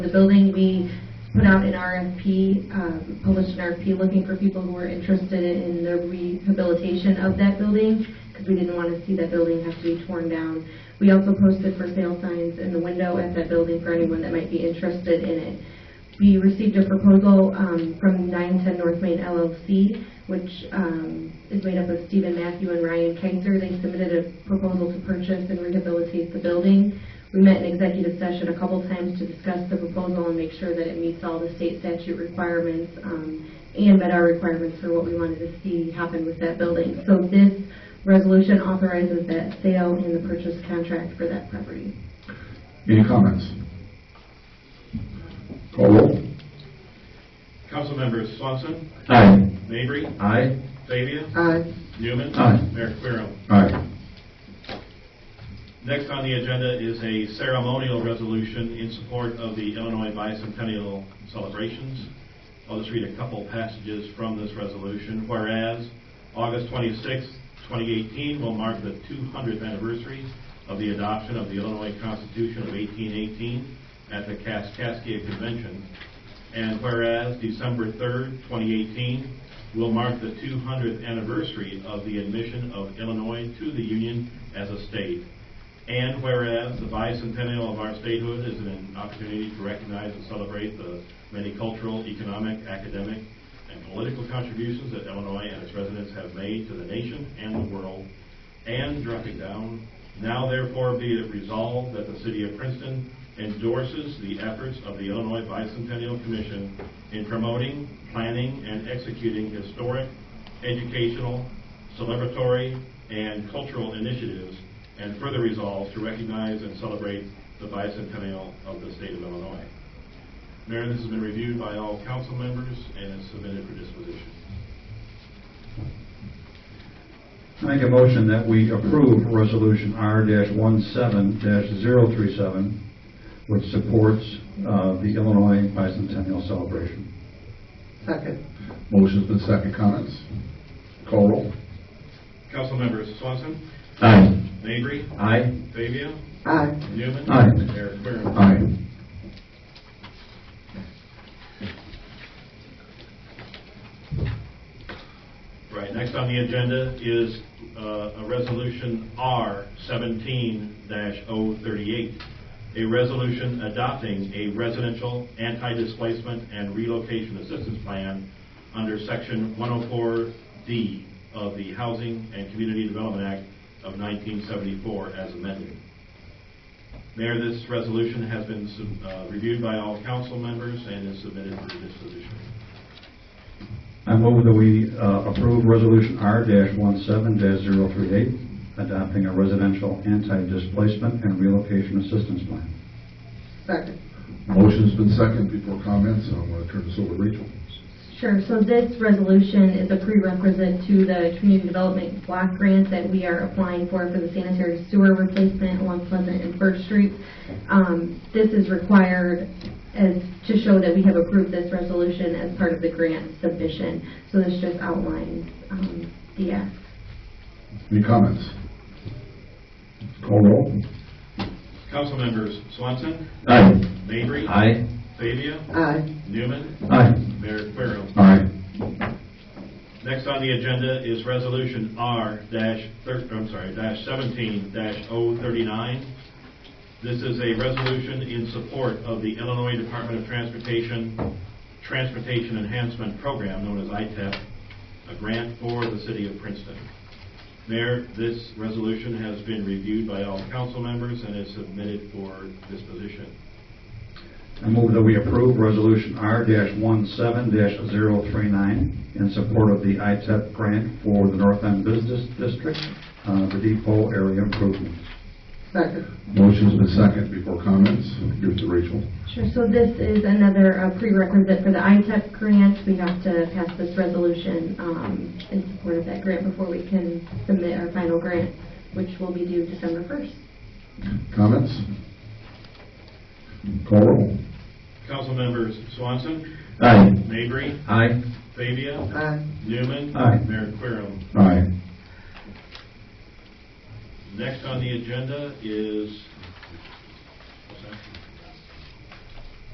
the building, we put out an RFP, um, published an RFP looking for people who were interested in the rehabilitation of that building, because we didn't want to see that building have to be torn down. We also posted for sale signs in the window at that building for anyone that might be interested in it. We received a proposal um, from 910 North Main LLC, which um, is made up of Stephen Matthew and Ryan Kaiser. They submitted a proposal to purchase and rehabilitate the building. We met in executive session a couple times to discuss the proposal and make sure that it meets all the state statute requirements um, and met our requirements for what we wanted to see happen with that building. So this resolution authorizes that sale and the purchase contract for that property. Any comments? Call roll. Councilmembers Swanson, Aye. Mavry, Aye. Fabia, Aye. Newman. Aye. Mayor Querem. Aye. Next on the agenda is a ceremonial resolution in support of the Illinois bicentennial celebrations. I'll just read a couple passages from this resolution. Whereas August 26, 2018 will mark the 200th anniversary of the adoption of the Illinois Constitution of 1818 at the Kaskaskia Convention. And whereas December 3, 2018 will mark the 200th anniversary of the admission of Illinois to the Union as a state. And whereas the bicentennial of our statehood is an opportunity to recognize and celebrate the many cultural, economic, academic, and political contributions that Illinois and its residents have made to the nation and the world, and dropping down, now therefore be it resolved that the city of Princeton endorses the efforts of the Illinois Bicentennial Commission in promoting, planning, and executing historic, educational, celebratory, and cultural initiatives, and further resolves to recognize and celebrate the bicentennial of the state of Illinois. Mayor, this has been reviewed by all council members and is submitted for disposition. I Make a motion that we approve Resolution R-17-037, which supports uh, the Illinois Bicentennial Celebration. Second. Motion's been second. Comments? Call roll. Councilmembers Swanson, Aye. Mabry, Aye. Fabia, Aye. Newman. Aye. Mayor Querem. Aye. Right, next on the agenda is uh, a resolution R seventeen 38 A resolution adopting a residential anti-displacement and relocation assistance plan under section one oh four D of the Housing and Community Development Act of nineteen seventy-four as amended. Mayor, this resolution has been sub- uh, reviewed by all council members and is submitted for disposition. I move that we uh, approve Resolution R-17-038, adopting a residential anti-displacement and relocation assistance plan. Second. Motion's been second before comments, and I want to turn this over to Rachel. Sure, so this resolution is a prerequisite to the community development block grant that we are applying for, for the sanitary sewer replacement along Pleasant and First Streets. Um, This is required as, to show that we have approved this resolution as part of the grant submission. So this just outlines um, the ask. Any comments? Call roll. Councilmembers Swanson, Aye. Mavry. Aye. Fabia, Aye. Newman, Aye. Mayor Querem. Aye. Next on the agenda is Resolution R dash, thir- I'm sorry, dash seventeen dash O thirty-nine. This is a resolution in support of the Illinois Department of Transportation Transportation Enhancement Program, known as ITEP, a grant for the city of Princeton. Mayor, this resolution has been reviewed by all council members and is submitted for disposition. I move that we approve Resolution R-17-039 in support of the ITEP grant for the North End Business District, uh, the depot area improvements. Second. Motion's been second before comments, give it to Rachel. Sure, so this is another uh, prerequisite for the ITEP grant. We have to pass this resolution um, in support of that grant before we can submit our final grant, which will be due December 1st. Comments? Call roll. Councilmembers Swanson, Aye. Mabry, Aye. Fabia, Aye. Newman. Aye. Mayor Querem. Aye. Next on the agenda is